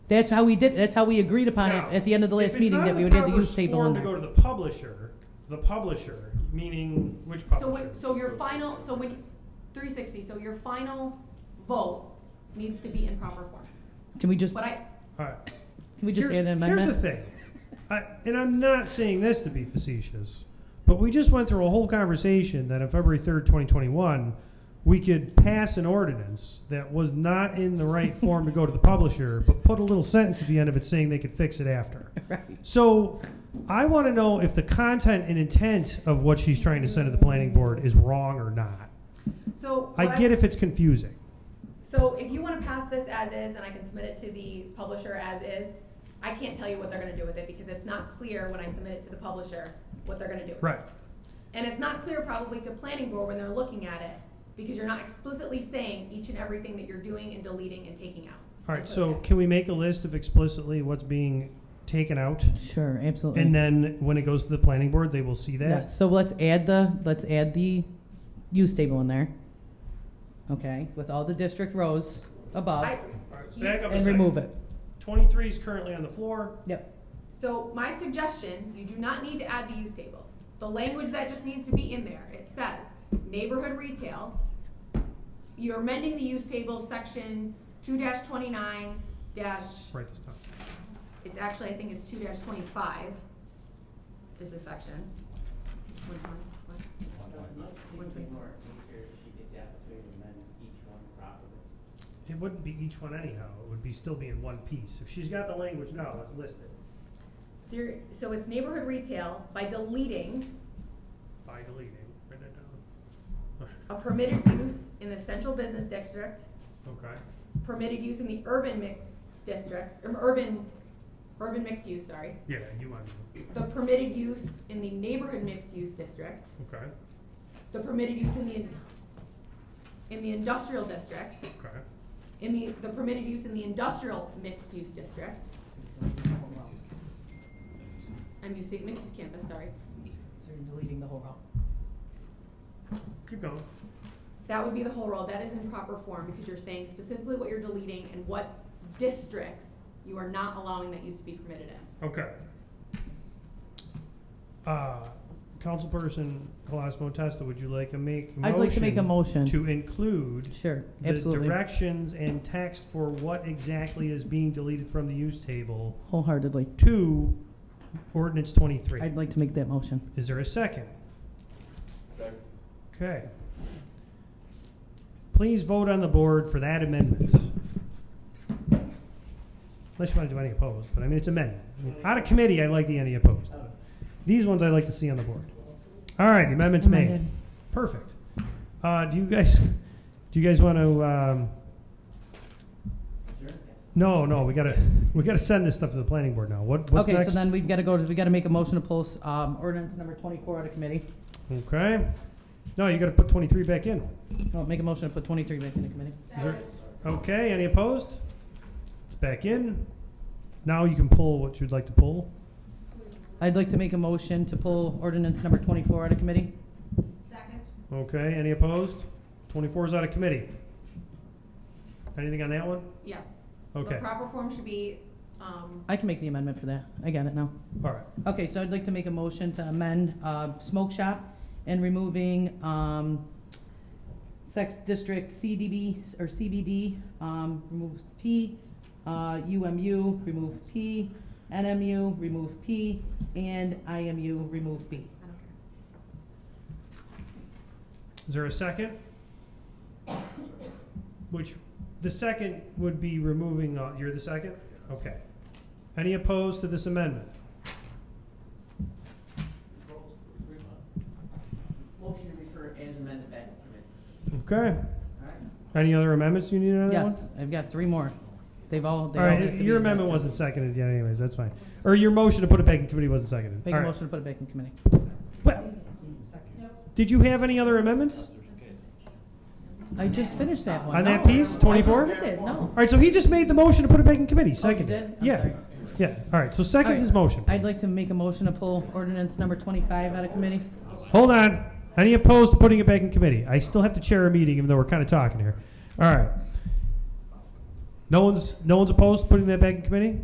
That's how we did, that's how we agreed upon it Now, at the end of the if last it's meeting, not that in we the would have the powers use table form in To go there. to the publisher, the publisher, meaning which So publisher? when, so your final, so when, three sixty, so your final vote needs to be in proper form. Can we just, But can I, All right. we just add here's, an Here's the amendment? thing, I, and I'm not saying this to be facetious, but we just went through a whole conversation that on February 3rd, 2021, we could pass an ordinance that was not in the right form to go to the publisher, but put a little sentence at the end of it saying they could fix it after. Right. So I want to know if the content and intent of what she's trying to send to the planning board is wrong or not. so. I what get if it's confusing. So if you wanna pass this as is, and I can submit it to the publisher as is, I can't tell you what they're gonna do with it, because it's not clear when I submit it to the publisher what they're gonna do. with it. Right. And it's not clear probably to planning board when they're looking at it, because you're not explicitly saying each and everything that you're doing and deleting and taking out. All right, so can we make a list of explicitly what's being taken out? Sure, absolutely. And then when it goes to the planning board, they will see that. Mm. Yes, so let's add the, let's add the use table in there. Okay, with all the district rows above, I, Back up a and second. remove it. Twenty-three is currently on the floor. Yep, So my suggestion, you do not need to add the use table. The language that just needs to be in there, it says neighborhood retail. You're amending the use table section two twenty-nine dash, Write this down. it's actually, I think it's two twenty-five is the section. Which one? What? Would be more clear if she gets the opportunity to amend each one properly. It wouldn't be each one anyhow. It would be still be in one piece. If she's got the language now, let's list it So you're, so it's neighborhood retail by deleting by deleting. Write that down. a permitted use in the central business district Okay. permitted use in the urban mixed district, um, urban, urban mixed use, sorry. Yeah, you want to. The permitted use in the neighborhood mixed use district, Okay, the permitted use in the, in the industrial district, okay. in the, the permitted use in the industrial mixed use district. I'm using, mixed use campus, sorry. So you're deleting the whole row. Keep going. That would be the whole row, that is in proper form, because you're saying specifically what you're deleting and what districts you are not allowing that use to be permitted in. Okay. Uh, Councilperson Colasmo Testa, would you like to make a motion? I'd like to make a motion. To include sure, the absolutely, directions and text for what exactly is being deleted from the use table wholeheartedly. to ordinance twenty-three. I'd like to make that motion. Is there a second? Okay. Please vote on the board for that amendment. Unless you want to do any opposed, but I mean, it's amendment. Out of committee, I like the any opposed. These ones I like to see on the board. All right, the amendment's Oh my made. God. Perfect. Uh, do you guys, do you guys want to, um, Sure. no, no, we gotta, we gotta send this stuff to the planning board now. What, what's Okay, next? so then we've gotta go, to- we gotta make a motion to post, um, ordinance number twenty-four out of committee. Okay. No, you gotta put twenty-three back in. Well, make a motion to put twenty-three back into committee. Is there- Okay, any opposed? It's back in. Now you can pull what you'd like to pull. I'd like to make a motion to pull ordinance number twenty-four out of committee. Second. Okay, any opposed? Twenty-four is out of committee. Anything on that one? Yes. The Okay, proper form should be, um, I can make the amendment for that, I got it now. all right. Okay, so I'd like to make a motion to amend uh, smoke shop and removing um, sec, district CDB, or CBD, um, remove P, uh, UMU, remove P, NMU, remove P, and IMU, remove B. I don't care. Is there a second? Which, the second would be removing, uh, you're the second? Okay. Any opposed to this amendment? Motion to refer as amended back to committee. Okay. All right. Any other amendments you need on that one? Yes, I've got three more. They've all, they All all have right, to be your amendment addressed. wasn't seconded yet anyways, that's fine. Or your motion to put it back in committee wasn't seconded. Make All a right. motion to put it back in committee. Well, Did you have any other amendments? I just finished that one. On that No, piece, I just 24? did it, no. All right, so he just made the motion to put it back in committee, Oh, you second. did? I'm Yeah, sorry. yeah, all right, so second his All right. motion. I'd like to make a motion to pull ordinance number twenty-five out of committee. Hold on, any opposed to putting it back in committee? I still have to chair a meeting even though we're kind of talking here. All right. No one's, no one's opposed to putting that back in committee?